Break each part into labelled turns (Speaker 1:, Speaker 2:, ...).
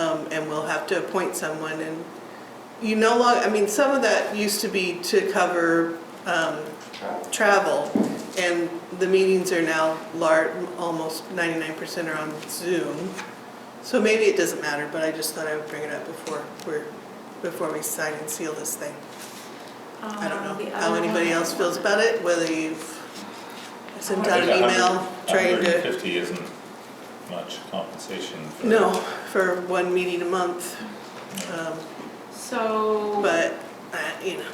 Speaker 1: um, and we'll have to appoint someone and you no longer, I mean, some of that used to be to cover um, travel, and the meetings are now lar, almost 99% are on Zoom. So maybe it doesn't matter, but I just thought I would bring it up before we're, before we sign and seal this thing. I don't
Speaker 2: Um,
Speaker 1: know how anybody else feels about it, whether you've sent out an email trying
Speaker 3: Hundred and
Speaker 1: to,
Speaker 3: fifty isn't much compensation for.
Speaker 1: no, for one meeting a month, um,
Speaker 2: So,
Speaker 1: but, uh, you know,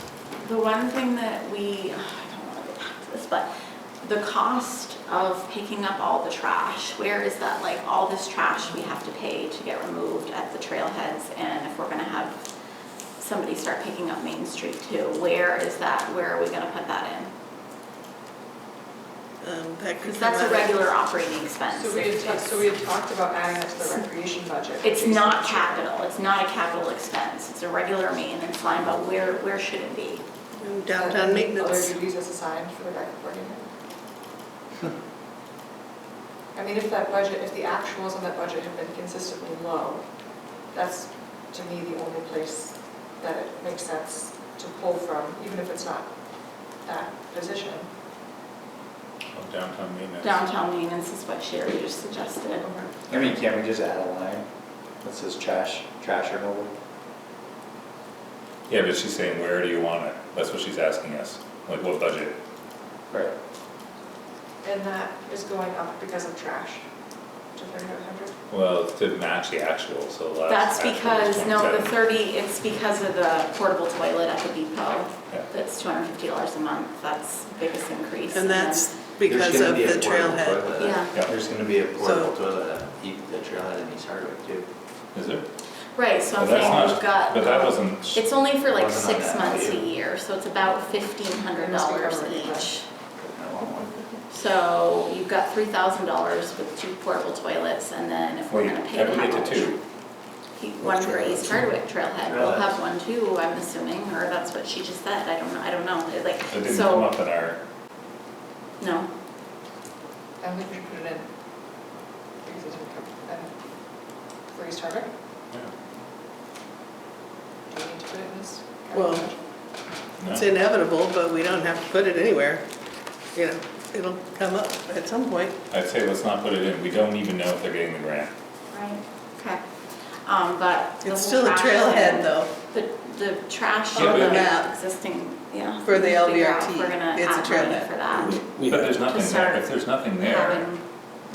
Speaker 2: the one thing that we, I don't wanna go back to this, but the cost of picking up all the trash, where is that, like, all this trash we have to pay to get removed at the trailheads? And if we're gonna have somebody start picking up Main Street too, where is that, where are we gonna put that in?
Speaker 1: um, that could come
Speaker 2: Because that's
Speaker 1: out
Speaker 2: a
Speaker 1: of-
Speaker 2: regular operating expense.
Speaker 4: So we had, ta- so we had talked about adding that to the recreation budget. which
Speaker 2: It's
Speaker 4: is-
Speaker 2: not capital, it's not a capital expense, it's a regular maintenance line, but where, where should it be?
Speaker 1: Downtown maintenance.
Speaker 4: Other duties as assigned for the rec coordinator. I mean, if that budget, if the actuals on that budget have been consistently low, that's to me the only place that it makes sense to pull from, even if it's not that position.
Speaker 3: Of Downtown maintenance.
Speaker 2: Downtown maintenance is what Sherry just suggested.
Speaker 5: I mean, can't we just add a line that says trash, trash removal?
Speaker 3: Yeah, but she's saying, where do you want it? That's what she's asking us, like what budget?
Speaker 5: Right.
Speaker 4: And that is going up because of trash to 3,900.
Speaker 3: Well, it's to match the actual, so last.
Speaker 2: That's
Speaker 3: actual was
Speaker 2: because, no, the
Speaker 3: 27.
Speaker 2: thirty, it's because of the portable toilet at the depot.
Speaker 3: Yeah.
Speaker 2: That's two hundred and fifty dollars a month, that's the biggest increase.
Speaker 1: And
Speaker 2: then-
Speaker 1: that's because
Speaker 5: There's gonna
Speaker 1: of
Speaker 5: be a
Speaker 1: the
Speaker 5: portable
Speaker 1: trailhead.
Speaker 5: toilet.
Speaker 2: Yeah.
Speaker 3: Yeah.
Speaker 5: There's gonna be a portable
Speaker 1: So-
Speaker 5: toilet at the the trailhead in East Hardwick too.
Speaker 3: Is it?
Speaker 2: Right, so
Speaker 3: Well,
Speaker 2: I'm
Speaker 3: that's
Speaker 2: saying
Speaker 3: not-
Speaker 2: we've got.
Speaker 3: But that wasn't,
Speaker 2: It's only for like
Speaker 5: Wasn't on
Speaker 2: six
Speaker 5: that
Speaker 2: months a
Speaker 5: value.
Speaker 2: year, so it's about fifteen hundred dollars
Speaker 4: Must be covered,
Speaker 2: each.
Speaker 5: I want one.
Speaker 2: So you've got three thousand dollars with two portable toilets, and then if
Speaker 3: well,
Speaker 2: we're
Speaker 3: you
Speaker 2: gonna pay
Speaker 3: have
Speaker 2: the
Speaker 3: to get to two.
Speaker 2: One for East Hardwick Trailhead, we'll
Speaker 5: Trailhead.
Speaker 2: have one too, I'm assuming, or that's what she just said, I don't know, I don't know, It, like,
Speaker 3: It didn't come
Speaker 2: so,
Speaker 3: up in our,
Speaker 2: no.
Speaker 4: I think we should put it in. Because it didn't come, and for East Hardwick,
Speaker 3: yeah,
Speaker 4: do we need to put it in this?
Speaker 1: Well,
Speaker 4: budget?
Speaker 1: It's
Speaker 3: no.
Speaker 1: inevitable, but we don't have to put it anywhere. You know, it'll come up at some point.
Speaker 3: I'd say let's not put it in. We don't even know if they're getting the grant.
Speaker 2: Right. Okay, um, but. the
Speaker 1: It's
Speaker 2: whole
Speaker 1: still a
Speaker 2: trash
Speaker 1: trailhead
Speaker 2: thing-
Speaker 1: though.
Speaker 2: The, the trash
Speaker 3: Yeah,
Speaker 2: on the
Speaker 3: but-
Speaker 1: Yeah.
Speaker 2: existing, yeah.
Speaker 1: For the
Speaker 2: we should figure out
Speaker 1: LVRT,
Speaker 2: if We're gonna
Speaker 1: it's a
Speaker 2: add money
Speaker 1: trailhead.
Speaker 2: for that,
Speaker 3: But there's nothing there.
Speaker 2: start
Speaker 3: If there's nothing there,
Speaker 2: having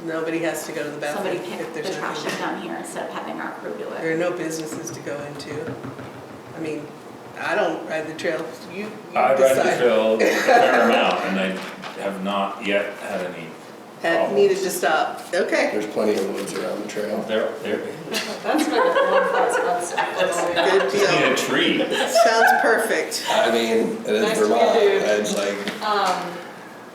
Speaker 1: Nobody has to go to the bathroom
Speaker 2: somebody
Speaker 1: if
Speaker 2: pick the
Speaker 1: there's
Speaker 2: trash up
Speaker 1: nothing.
Speaker 2: down here instead of having our crew do it.
Speaker 1: There are no businesses to go into. I mean, I don't ride the trail, you, you
Speaker 3: I ride the
Speaker 1: decide.
Speaker 3: trail a fair amount and I have not yet had any
Speaker 1: Had
Speaker 5: Oh.
Speaker 3: problems.
Speaker 1: needed to stop, okay.
Speaker 6: There's plenty of woods around the trail.
Speaker 3: There, there,
Speaker 4: That's what the one that's outside.
Speaker 1: Good
Speaker 3: just need
Speaker 1: deal,
Speaker 3: a tree.
Speaker 1: sounds perfect.
Speaker 6: I mean, it
Speaker 4: Nice
Speaker 6: is
Speaker 4: to
Speaker 6: Vermont,
Speaker 4: meet you.
Speaker 6: it's like,
Speaker 4: Um,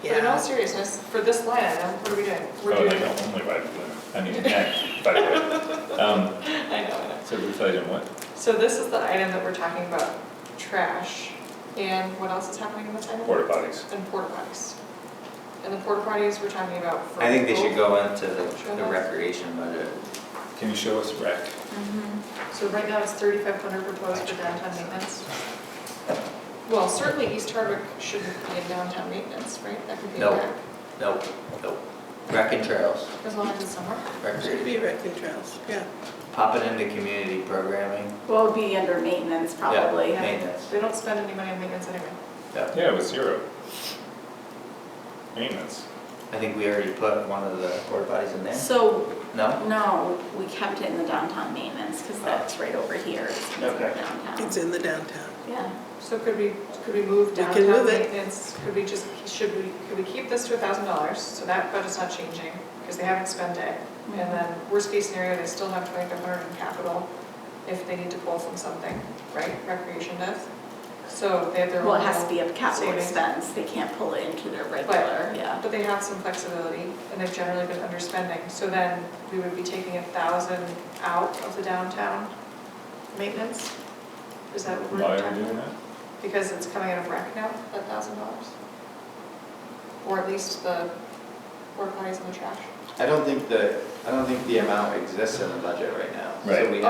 Speaker 4: but in all
Speaker 1: Yeah,
Speaker 4: seriousness, for this line item, what are we doing? We're
Speaker 3: Oh, and I
Speaker 4: doing,
Speaker 3: don't only ride the blue. I mean, yeah, by the way. Um,
Speaker 4: I know, I know.
Speaker 3: so we're deciding what?
Speaker 4: So this is the item that we're talking about, trash, and what else is happening in this item?
Speaker 3: Porta potties.
Speaker 4: And porta potties. And the porta potties we're talking about for.
Speaker 5: I think they should
Speaker 4: both.
Speaker 5: go into the the recreation budget.
Speaker 3: Can you show us rec?
Speaker 4: So right now it's thirty-five hundred proposed for downtown maintenance. Well, certainly East Hardwick shouldn't be in downtown maintenance, right? That could be
Speaker 5: No.
Speaker 4: back,
Speaker 5: Nope, nope. Rec and trails,
Speaker 4: as long as it's somewhere.
Speaker 1: should be
Speaker 5: recreation.
Speaker 1: wrecking trails, yeah.
Speaker 5: Pop it into community programming.
Speaker 2: Well, it'd be under maintenance
Speaker 5: Yeah,
Speaker 2: probably.
Speaker 5: Maintenance,
Speaker 4: They don't spend any money on maintenance anyway.
Speaker 5: yeah.
Speaker 3: Yeah, it was zero. Maintenance.
Speaker 5: I think we already put one of the porta potties in there.
Speaker 2: So,
Speaker 5: No?
Speaker 2: no, we kept it in the downtown maintenance, because that's right over here, it's considered
Speaker 5: Okay.
Speaker 2: downtown.
Speaker 1: It's in the downtown.
Speaker 2: Yeah,
Speaker 4: So could we, could we move
Speaker 1: We can
Speaker 4: downtown
Speaker 1: move it.
Speaker 4: maintenance, could we just, should we, could we keep this to a thousand dollars, so that budget's not changing, because they haven't spent it? And then, worst case scenario, they still have twenty-five hundred in capital if they need to pull from something, right, recreation does? So they have their own.
Speaker 2: well, it has to be a capital
Speaker 4: savings.
Speaker 2: expense, they can't pull it into their regular,
Speaker 4: But,
Speaker 2: yeah.
Speaker 4: but they have some flexibility, and they've generally been underspending, so then we would be taking a thousand out of the downtown maintenance? Is that what we're
Speaker 3: Why
Speaker 4: talking
Speaker 3: are
Speaker 4: about?
Speaker 3: we doing that?
Speaker 4: Because it's coming out of rec now, that thousand dollars? Or at least the porta potties and the trash?
Speaker 5: I don't think the, I don't think the amount exists in the budget right now. So
Speaker 3: Right.
Speaker 5: we